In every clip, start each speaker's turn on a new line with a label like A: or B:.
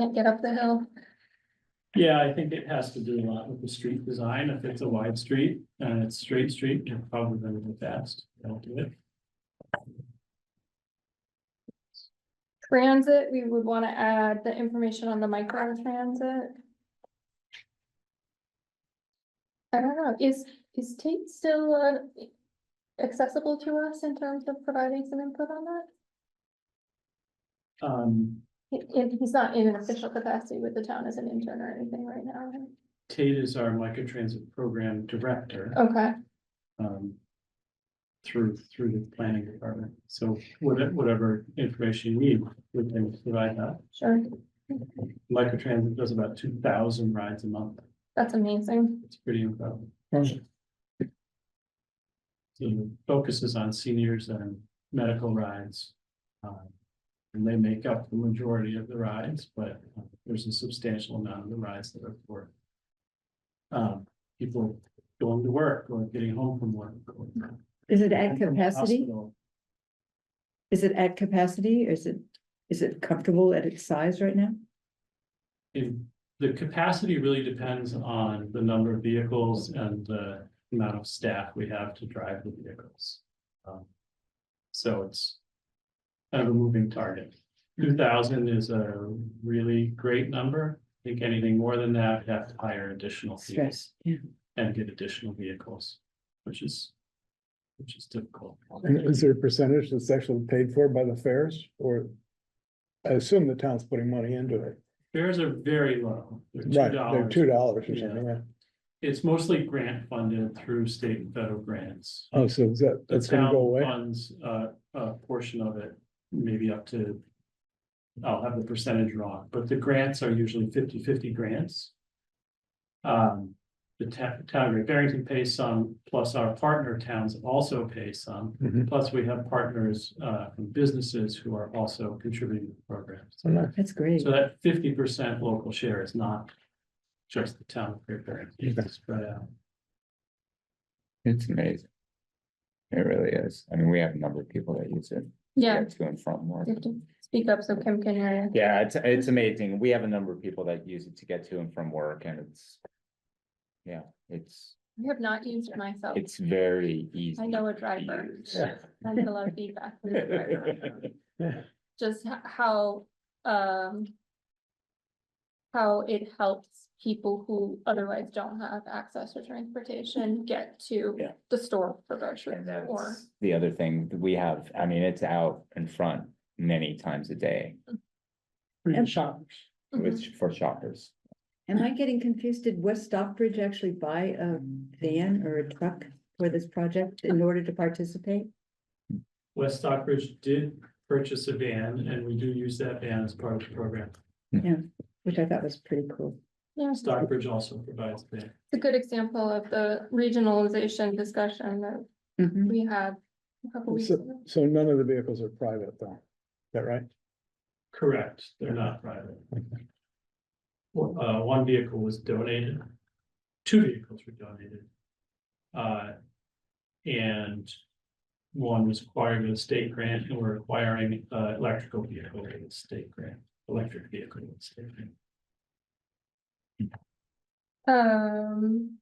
A: Can't get up the hill.
B: Yeah, I think it has to do a lot with the street design. If it's a wide street and it's straight street, you're probably gonna go fast. Don't do it.
A: Transit, we would wanna add the information on the micro transit. I don't know, is, is Tate still uh, accessible to us in terms of providing some input on that?
B: Um,
A: He- And he's not in an official capacity with the town as an intern or anything right now. right?
B: Tate is our microtransit program director,
A: Okay,
B: um. Through, through the planning department. So whatever, whatever information you need, we can provide that.
A: sure,
B: Microtransit does about two thousand rides a month.
A: that's amazing.
B: It's pretty incredible.
C: Mm.
B: So it focuses on seniors and medical rides. um, And they make up the majority of the rides, but uh, there's a substantial amount of the rides that are for. Um, people going to work or getting home from work. or
C: Is it at
B: from
C: capacity?
B: hospital.
C: Is it at capacity? Is it, is it comfortable at its size right now?
B: If the capacity really depends on the number of vehicles and the amount of staff we have to drive the vehicles. Um, So it's. Kind of a moving target. Two thousand is a really great number. I think anything more than that, we'd have to hire additional people
C: Stress, yeah.
B: and get additional vehicles, which is. Which is difficult.
D: And Is there a percentage that's actually paid for by the fares or? I assume the town's putting money into it.
B: Fares are very low. They're two
D: Right, they're
B: dollars.
D: two dollars or
B: Yeah.
D: something, right?
B: It's mostly grant funded through state and federal grants.
D: Oh, so is that,
B: The
D: that's gonna
B: town
D: go away?
B: funds uh a portion of it, maybe up to. I'll have the percentage wrong, but the grants are usually 50-50 grants. Um, the ta- town of Great Barrington pays some, plus our partner towns also pay some.
D: Mhm.
B: Plus, we have partners uh from businesses who are also contributing to the program.
D: Oh, nice.
C: That's great.
B: So that fifty percent local share is not just the town of Great Barrington, uh,
D: Okay.
B: it's spread out.
E: It's amazing. It really is. I mean, we have a number of people that use it.
A: Yeah,
E: To and from work.
A: you have to speak up so Kim can hear you.
E: Yeah, it's, it's amazing. We have a number of people that use it to get to and from work and it's. Yeah, it's,
A: I have not used it myself.
E: it's very easy.
A: I know a
E: to
A: driver.
E: use.
A: I get a lot of feedback. from the driver. just h- how, um. How it helps people who otherwise don't have access to transportation get to
E: Yeah.
A: the store for groceries
E: And
A: or.
E: that's the other thing that we have. I mean, it's out in front many times a day
C: And-
B: shoppers.
A: Mhm.
E: with, for shoppers.
C: Am I getting confused? Did West Stockbridge actually buy a van or a truck for this project in order to participate?
B: West Stockbridge did purchase a van and we do use that van as part of the program.
C: Which I thought was pretty cool.
A: Yeah, it's
B: Stockbridge also provides the
A: a good example of the regionalization discussion that
C: Mhm.
A: we had a couple weeks ago.
D: So none of the vehicles are private though, is that right?
B: Correct, they're not private. Well, Uh, one vehicle was donated, two vehicles were donated. Uh, and one was acquired with a state grant and we're acquiring, uh, electrical vehicle with a state grant, electric vehicle with a state grant.
A: Um,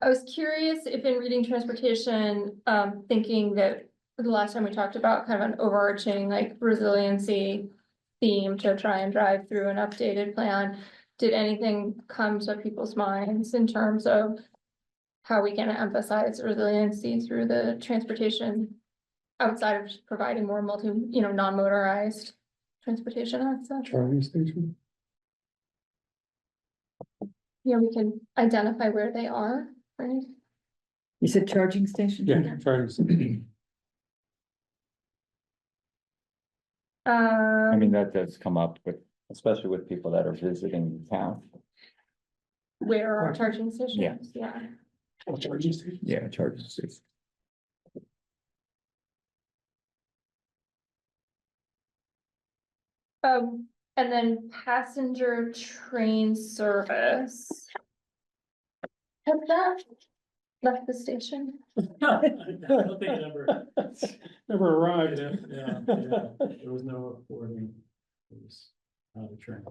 A: I was curious if in reading transportation, um, thinking that the last time we talked about kind of an overarching like resiliency theme to try and drive through an updated plan, did anything come to people's minds in terms of how we can emphasize resiliency through the transportation outside of just providing more multi, you know, non-motorized transportation access?
D: Charging station?
A: You know, we can identify where they are, right?
C: You said charging station?
A: Um.
E: I mean, that does come up with, especially with people that are visiting the town.
A: Where are
B: Right.
A: charging stations? Yeah.
B: Charging station?
E: Yeah, charges. It's-
A: Um, and then passenger train service. Has that left the station?
B: I don't think it ever,
D: Never
B: yeah, yeah, there was no reporting. It was not a train.